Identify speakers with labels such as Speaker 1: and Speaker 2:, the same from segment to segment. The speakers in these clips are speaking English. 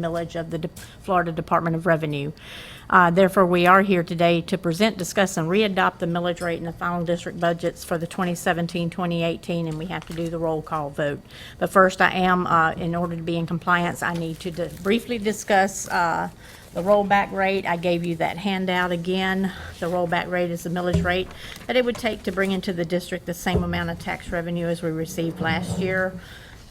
Speaker 1: millage of the De- Florida Department of Revenue. Uh, Therefore, we are here today to present, discuss, and readopt the millage rate in the final district budgets for the 2017, 2018, and we have to do the roll call vote. But first, I am, uh, in order to be in compliance, I need to di- briefly discuss uh, the rollback rate. I gave you that handout again. The rollback rate is the millage rate that it would take to bring into the district the same amount of tax revenue as we received last year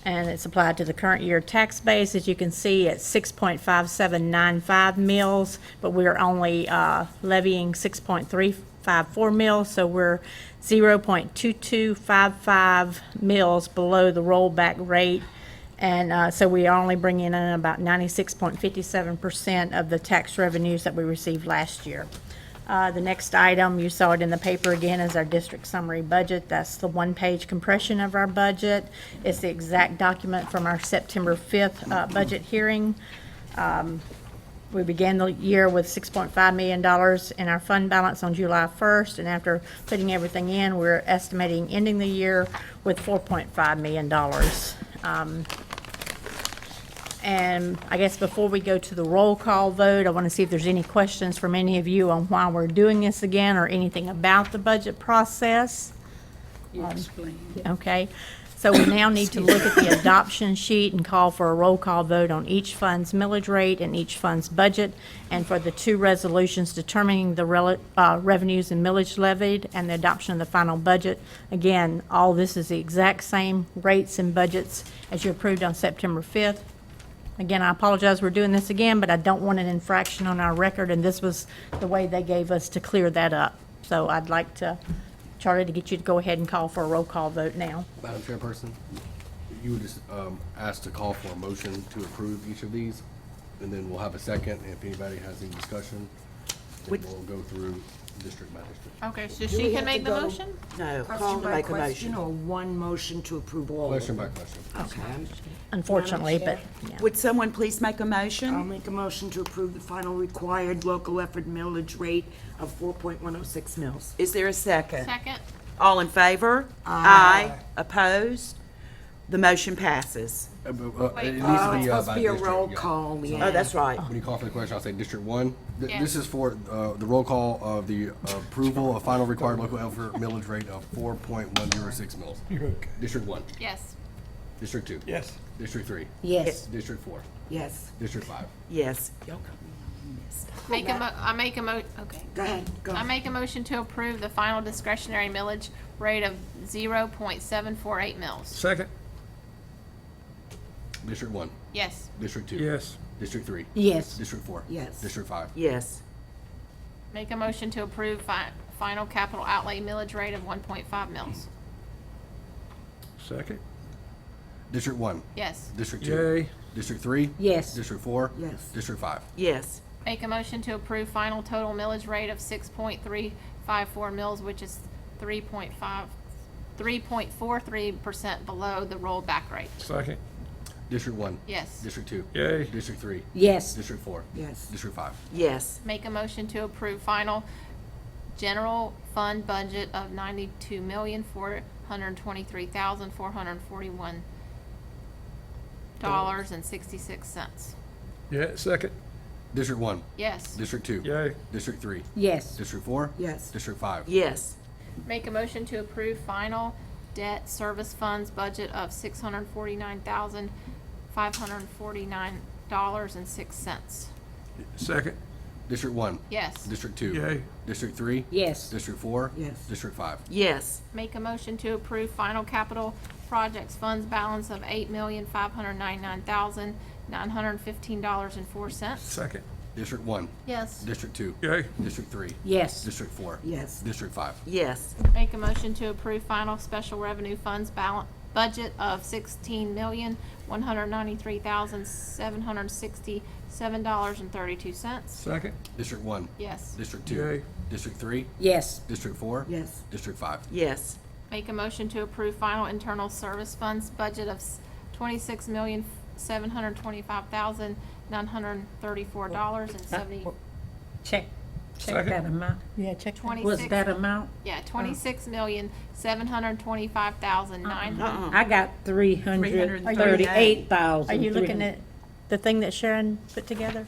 Speaker 1: and it's applied to the current year tax base. As you can see, it's 6.5795 mills, but we're only uh, levying 6.354 mills, so we're 0.2255 mills below the rollback rate. And uh, so we are only bringing in about 96.57% of the tax revenues that we received last year. Uh, The next item, you saw it in the paper again, is our district summary budget. That's the one-page compression of our budget. It's the exact document from our September 5th uh, budget hearing. Um, We began the year with $6.5 million in our fund balance on July 1st, and after putting everything in, we're estimating ending the year with $4.5 million. Um, and I guess before we go to the roll call vote, I want to see if there's any questions from any of you on why we're doing this again or anything about the budget process.
Speaker 2: You
Speaker 3: Um,
Speaker 2: explained.
Speaker 1: Okay, so we now need to look at the adoption sheet and call for a roll call vote on each fund's millage rate and each fund's budget, and for the two resolutions determining the rel- uh, revenues and millage levied and the adoption of the final budget. Again, all this is the exact same rates and budgets as you approved on September 5th. Again, I apologize, we're doing this again, but I don't want an infraction on our record, and this was the way they gave us to clear that up. So I'd like to, Charlie, to get you to go ahead and call for a roll call vote now.
Speaker 4: Madam Chairperson, you would just um, ask to call for a motion to approve each of these, and then we'll have a second. If anybody has any discussion, then we'll go through district by district.
Speaker 5: Okay, so she can make the motion?
Speaker 6: No,
Speaker 2: Question
Speaker 6: call to
Speaker 2: by
Speaker 6: make a
Speaker 2: question
Speaker 6: motion.
Speaker 2: or one motion to approve all of
Speaker 4: Question
Speaker 2: them?
Speaker 4: by question.
Speaker 6: Oh,
Speaker 4: Uh,
Speaker 1: Unfortunately, but, yeah.
Speaker 3: Would someone please make a
Speaker 6: I'll
Speaker 3: motion?
Speaker 6: make a motion to approve the final required local effort millage rate of 4.106 mils.
Speaker 3: Is there a second?
Speaker 5: Second?
Speaker 3: All in favor? Aye. Opposed? The motion passes.
Speaker 4: Uh, but, uh, It needs
Speaker 6: Oh,
Speaker 4: to
Speaker 6: it's
Speaker 4: be uh,
Speaker 6: supposed to
Speaker 4: by
Speaker 6: be a
Speaker 4: district.
Speaker 6: roll
Speaker 4: yeah.
Speaker 6: call,
Speaker 3: Oh,
Speaker 6: Leanne.
Speaker 3: that's right.
Speaker 4: When you call for the question, I'll say District One. Th-
Speaker 5: Yeah.
Speaker 4: This is for uh, the roll call of the approval of final required local effort millage rate of four point one zero six mils. District One,
Speaker 5: Yes.
Speaker 4: District Two. Yes. District Three,
Speaker 6: Yes,
Speaker 4: District Four,
Speaker 6: yes.
Speaker 4: District Five.
Speaker 3: Yes.
Speaker 5: Make a mo, I make a mo, okay.
Speaker 6: Go ahead, go.
Speaker 5: I make a motion to approve the final discretionary millage rate of zero point seven four eight mils.
Speaker 7: Second.
Speaker 4: District One,
Speaker 5: Yes.
Speaker 4: District Two.
Speaker 7: Yes.
Speaker 4: District Three.
Speaker 6: Yes.
Speaker 4: District Four.
Speaker 6: Yes.
Speaker 4: District Five.
Speaker 3: Yes.
Speaker 5: Make a motion to approve fi- final capital outlay millage rate of one point five mils.
Speaker 7: Second.
Speaker 4: District one.
Speaker 5: Yes.
Speaker 4: District two.
Speaker 7: Yay.
Speaker 4: District three.
Speaker 6: Yes.
Speaker 4: District four.
Speaker 6: Yes.
Speaker 4: District five.
Speaker 3: Yes.
Speaker 5: Make a motion to approve final total millage rate of six point three five four mils, which is three point five, three point four three percent below the rollback rate.
Speaker 7: Second.
Speaker 4: District one.
Speaker 5: Yes.
Speaker 4: District two.
Speaker 7: Yay.
Speaker 4: District three.
Speaker 6: Yes,
Speaker 4: District four.
Speaker 6: Yes.
Speaker 4: District five.
Speaker 3: Yes.
Speaker 5: Make a motion to approve final general fund budget of ninety-two million, four hundred and twenty-three thousand, four hundred and forty-one dollars and sixty-six cents.
Speaker 7: Yeah, second.
Speaker 4: District one.
Speaker 5: Yes.
Speaker 4: District two.
Speaker 7: Yay.
Speaker 4: District three.
Speaker 6: yes,
Speaker 4: District four.
Speaker 6: Yes.
Speaker 4: District five.
Speaker 3: Yes.
Speaker 5: Make a motion to approve final debt service funds budget of six hundred and forty-nine thousand, five hundred and forty-nine dollars and six cents.
Speaker 7: Second.
Speaker 4: District one.
Speaker 5: Yes.
Speaker 4: District two.
Speaker 7: Yay.
Speaker 4: District three.
Speaker 6: yes,
Speaker 4: District four.
Speaker 6: Yes.
Speaker 4: District five.
Speaker 3: Yes.
Speaker 5: Make a motion to approve final capital projects funds balance of eight million, five hundred ninety-nine thousand, nine hundred fifteen dollars and four cents.
Speaker 7: Second.
Speaker 4: District one.
Speaker 5: Yes.
Speaker 4: District two.
Speaker 7: Yay.
Speaker 4: District three.
Speaker 1: Yes,
Speaker 4: District four.
Speaker 6: Yes.
Speaker 4: District five.
Speaker 3: Yes.
Speaker 5: Make a motion to approve final special revenue funds balance, budget of sixteen million, one hundred ninety-three thousand, seven hundred sixty-seven dollars and thirty-two cents.
Speaker 7: Second.
Speaker 4: District one.
Speaker 5: Yes.
Speaker 4: District two.
Speaker 7: Yay.
Speaker 4: District three.
Speaker 1: yes,
Speaker 4: District four.
Speaker 6: Yes.
Speaker 4: District five.
Speaker 3: Yes.
Speaker 5: Make a motion to approve final internal service funds budget of twenty-six million, seven hundred twenty-five thousand, nine hundred thirty-four dollars and seventy,
Speaker 8: Check, check
Speaker 7: Second.
Speaker 8: that amount.
Speaker 1: yeah, check
Speaker 8: Was
Speaker 5: twenty-six
Speaker 8: that amount?
Speaker 5: Yeah, twenty-six million, seven hundred twenty-five thousand nine hundred.
Speaker 8: I got three hundred thirty-eight thousand.
Speaker 1: Are you looking at the thing that Sharon put together?